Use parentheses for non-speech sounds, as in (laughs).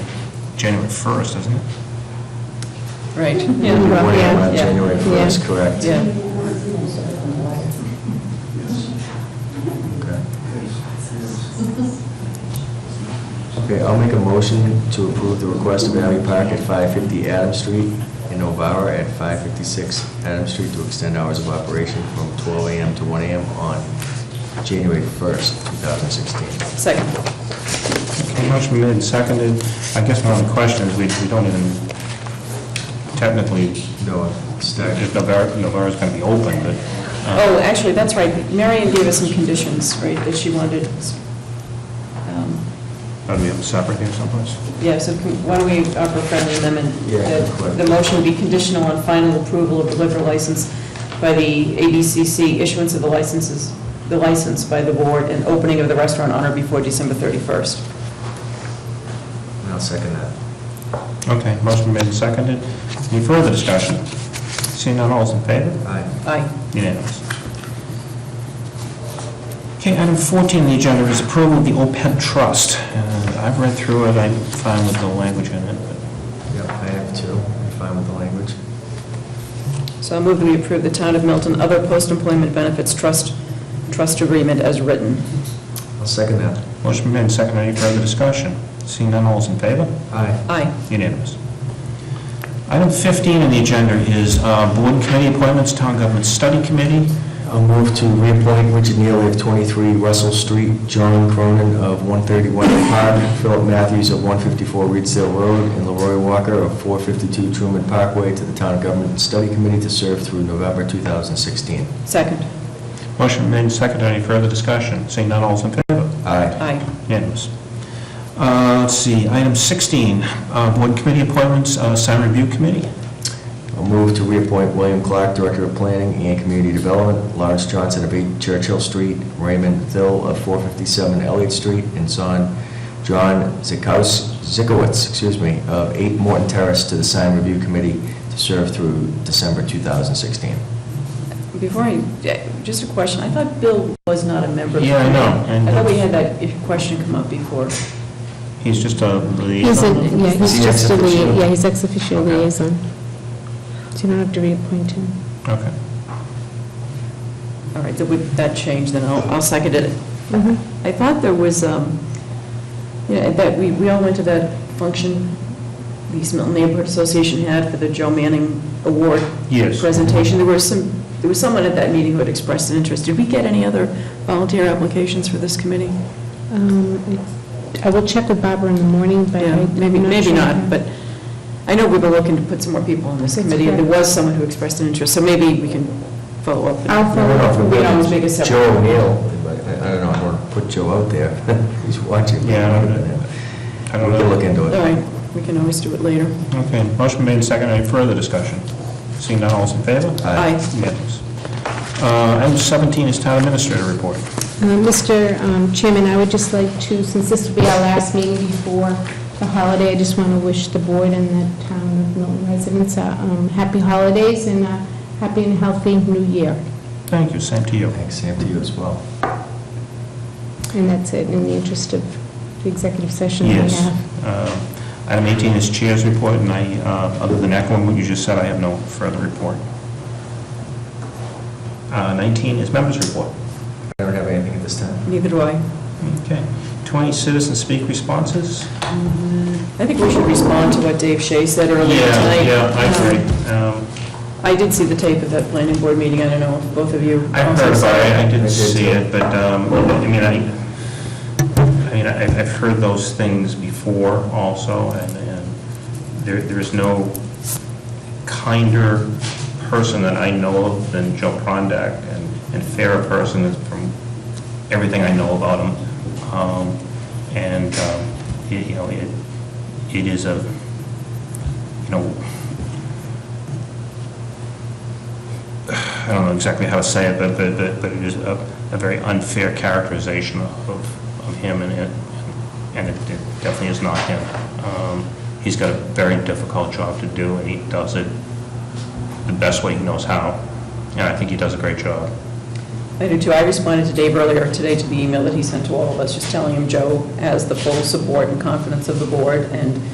January 1st, isn't it? Right, yeah, Well, yeah, yeah, January yeah. 1st, correct. yeah. Okay. Okay, I'll make a motion to approve the request of Abbey Park at 550 Adams Street and Novara at 556 Adams Street to extend hours of operation from 12 AM to 1 AM on January 1st, 2016. Second. Uh-huh. Okay, Motion made and seconded. I guess my only question is, we we don't even, technically, uh, No, it's not- if Novara- Novara's going to be open, but... uh, Oh, actually, that's right, Marion gave us some conditions, right, that she wanted, um, That'll be separate here someplace? yeah, so can- why don't we offer a friendly amendment? Yeah, that correct. The motion be conditional on final approval of the liquor license by the ABCC, issuance of the licenses, the license by the board, and opening of the restaurant on or before December 31st. I'll second that. Okay, motion made and seconded. Any further discussion? Seeing none, all's in favor? Aye. Aye. Unanimous. Okay, item 14 on the agenda is approval of the OPEB trust. Uh, I've read through it, I'm fine with the language in it, but Yep, I have two. I'm fine with the language. So I move that we approve the Town of Milton Other Post-Employment Benefits Trust, Trust Agreement as written. I'll second that. motion made and seconded. Any further discussion? Seeing none, all's in favor? Aye. Aye. Unanimous. Item 15 on the agenda is uh, board and committee appointments, town government study committee. I'll move to reappoint Richard Neely of 23 Russell Street, John Cronin of 131 Park, Philip Matthews of 154 Reedsdale Road, and Leroy Walker of 452 Truman Parkway to the Town Government Study Committee to serve through November 2016. Second. Motion made and seconded. Any further discussion? Seeing none, all's in favor? Aye. Aye. Unanimous. Uh, Let's see, item 16, uh, board and committee appointments, uh, sign review committee. I'll move to reappoint William Clark, Director of Planning and Community Development, Lawrence Johnson of 8 Churchill Street, Raymond Thill of 457 Elliott Street, and son John Zikaus- Zikowitz, excuse me, of 8 Morton Terrace to the Sign Review Committee to serve through December 2016. Before I, eh, just a question, I thought Bill was not a member. of the Yeah, I know, committee. and- I thought we had that i- question come up before. He's just a He's a, liaison. yeah, Is he he's just a, ex officio? lia- yeah, he's ex officio Okay. liaison. So you don't have to reappoint him. Okay. All right, that would, that changed, then I'll, I'll second it. I thought there was, um, you know, that, we, we all went to that function the East Milton Neighborhood Association had for the Joe Manning Award Yes. presentation. There were some, there was someone at that meeting who had expressed an interest. Did we get any other volunteer applications for this committee? Um, I I will check with Barbara in the morning, but Yeah, I- maybe, I'm maybe sure. not, but I know we were looking to put some more people on this That's committee, and there correct. was someone who expressed an interest, so maybe we can follow up. I'll follow up. We can always make a separate. Joe O'Neill, I I don't know, I'm going to put Joe out there. (laughs) He's watching. Yeah, I don't know. I don't We can look know. into All it. right, we can always do it later. Okay, motion made and seconded. Any further discussion? Seeing none, all's in favor? Aye. Aye. Unanimous. Uh, Item 17 is town administrator report. Uh, Mr. um, Chairman, I would just like to, since this will be our last meeting before the holiday, I just want to wish the board and the town of Milton residents uh, um, happy holidays and a happy and healthy new year. Thank you, same to you. Thanks, Sam, to you as well. And that's it, in the interest of the executive session that we Yes. have. Uh, Item 18 is chair's report, and I, uh, other than echoing what you just said, I have no further report. Uh, 19 is members' report. I don't have anything at this time. Neither do I. Okay. 20, citizen speak responses? I think we should respond to what Dave Shea said earlier tonight. Um, Um, I did see the tape of that planning board meeting, I don't know if both of you. I have also heard saw about it, I I didn't did see too. it, but, um, I mean, I, I mean, I- I've heard those things before also, and, and there, there is no kinder person that I know of than Joe Prondak, and, and fairer person is from everything I know about him. Um, and, um, it- you know, it, it is a, you know, I don't know exactly how to say it, but, but, but- but it is a, a very unfair characterization of, of him, and it, and it it definitely is not him. Um, He's got a very difficult job to do, and he does it the best way he knows how, and I think he does a great job. I do too. I responded to Dave earlier today to the email that he sent to all of us, just telling him Joe has the full support and confidence of the board, and